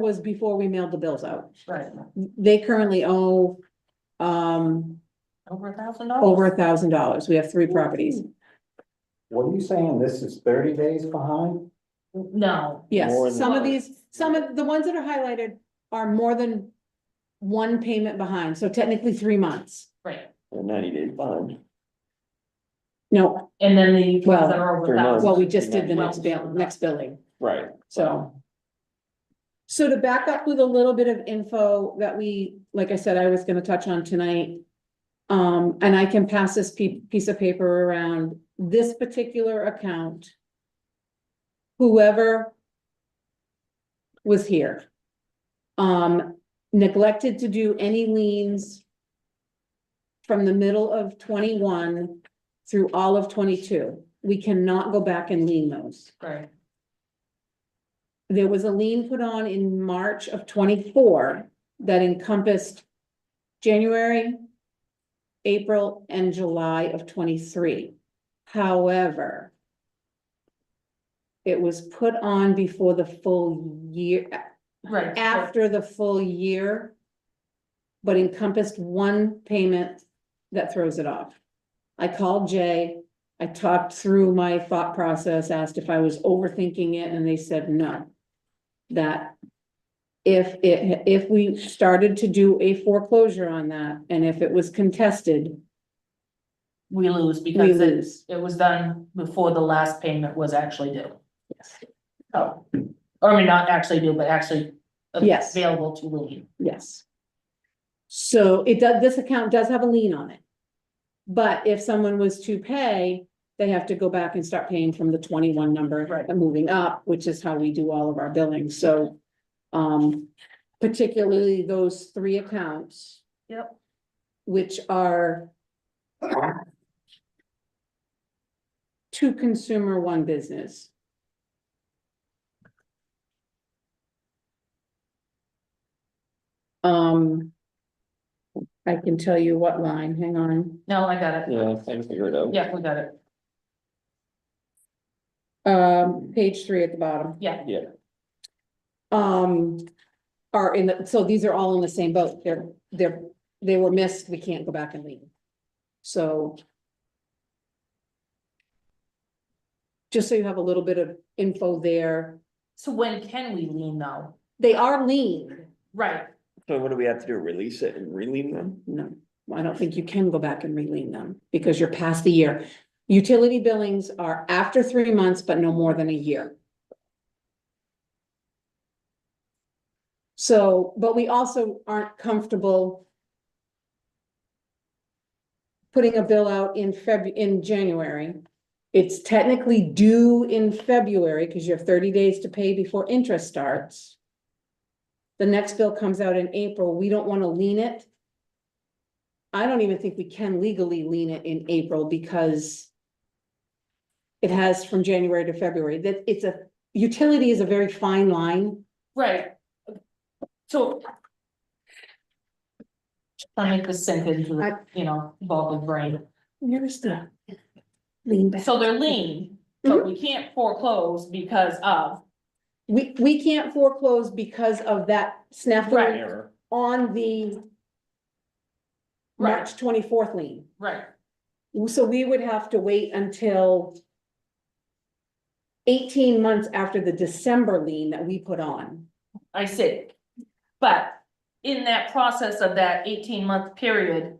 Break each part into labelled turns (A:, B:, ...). A: was before we mailed the bills out.
B: Right,
A: They currently owe um
B: over a thousand dollars.
A: over a thousand dollars. We have three properties.
C: What are you saying? This is thirty days behind?
B: No,
C: More
A: Yes,
C: than-
A: some of these, some of the ones that are highlighted are more than one payment behind, so technically three months.
B: right,
C: Or ninety days behind?
A: No,
B: and then the
A: Well,
B: ones that are over
C: three
B: a thousand.
A: well, we just did the next bill, next billing.
C: Right.
A: So. So to back up with a little bit of info that we, like I said, I was gonna touch on tonight. Um, and I can pass this pe- piece of paper around, this particular account. Whoever. Was here. Um, neglected to do any liens. From the middle of twenty-one through all of twenty-two, we cannot go back and lien those
B: Right,
A: there was a lien put on in March of twenty-four that encompassed January, April, and July of twenty-three. However, it was put on before the full year,
B: right.
A: after the full year, but encompassed one payment that throws it off. I called Jay, I talked through my thought process, asked if I was overthinking it, and they said no. That if it, if we started to do a foreclosure on that, and if it was contested,
B: We lose
A: we
B: because it,
A: lose.
B: it was done before the last payment was actually due.
A: Yes.
B: Oh, or I mean, not actually due, but actually.
A: Yes.
B: Available to lien.
A: Yes. So it does, this account does have a lien on it. But if someone was to pay, they have to go back and start paying from the twenty-one number.
B: Right.
A: And moving up, which is how we do all of our billing, so, um, particularly those three accounts.
B: Yep.
A: Which are. Two consumer, one business. Um. I can tell you what line, hang on,
B: No, I got it.
C: Yeah, I can figure it out.
B: Yeah, we got it.
A: um, page three at the bottom,
B: Yeah,
C: Yeah.
A: um. Are in the, so these are all in the same boat, they're, they're, they were missed, we can't go back and leave. So. Just so you have a little bit of info there,
B: so when can we lien though?
A: they are lean,
B: Right,
C: So what do we have to do? Release it and relean them?
A: no, I don't think you can go back and re-lean them, because you're past the year. Utility billings are after three months, but no more than a year. So, but we also aren't comfortable putting a bill out in Feb, in January. It's technically due in February, because you have thirty days to pay before interest starts. The next bill comes out in April, we don't wanna lean it I don't even think we can legally lean it in April because it has from January to February, that it's a, utility is a very fine line.
B: right. So. Trying to make this sink into, the, you know, evolving brain.
A: Where's the lean
B: So they're lean,
A: Mm-hmm.
B: but we can't foreclose because of,
A: We, we can't foreclose because of that snafu
B: Right.
C: Error.
A: on the March twenty-fourth lien.
B: right,
A: So we would have to wait until eighteen months after the December lien that we put on.
B: I see. But in that process of that eighteen month period.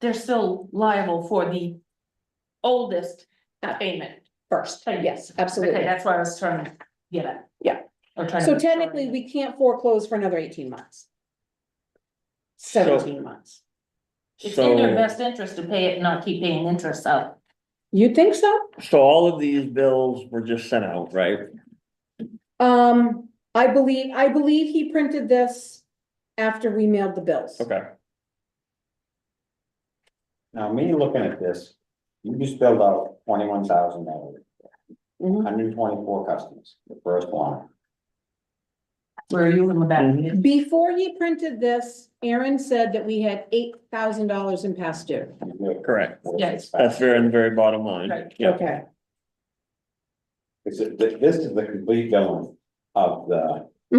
B: They're still liable for the oldest payment.
A: First, yes, absolutely.
B: Okay, that's what I was trying to get at.
A: Yeah.
B: Or trying to
A: So
B: make sure.
A: technically, we can't foreclose for another eighteen months. Seventeen months.
B: It's in their
C: So,
B: best interest to pay it and not keep paying interest up.
A: You think so?
C: so all of these bills were just sent out, right?
A: Um, I believe, I believe he printed this after we mailed the bills.
C: Okay.
D: Now, me looking at this, you just billed out twenty-one thousand dollars,
A: Mhm.
D: hundred and twenty-four customers, the first line.
B: Where are you in the back?
A: Mm-hmm.
C: Mhm.
A: Before he printed this, Aaron said that we had eight thousand dollars in past due.
D: You billed
C: Correct.
D: 46,000.
C: That's very, in the very bottom line.
B: Right.
C: Yeah.
A: Okay.
D: This is, th- this is the complete billing of the